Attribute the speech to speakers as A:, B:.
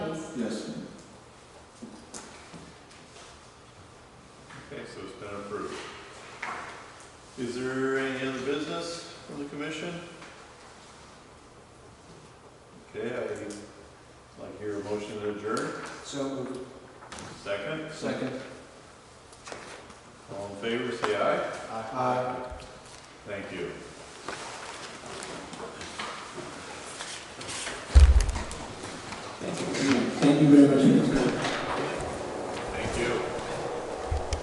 A: so it's been approved. Is there any other business from the commission? Okay, I'd like to hear a motion to adjourn.
B: So moved.
A: Second,
B: Second.
A: all in favor, say aye.
B: Aye.
A: Thank you.
B: Thank you very much.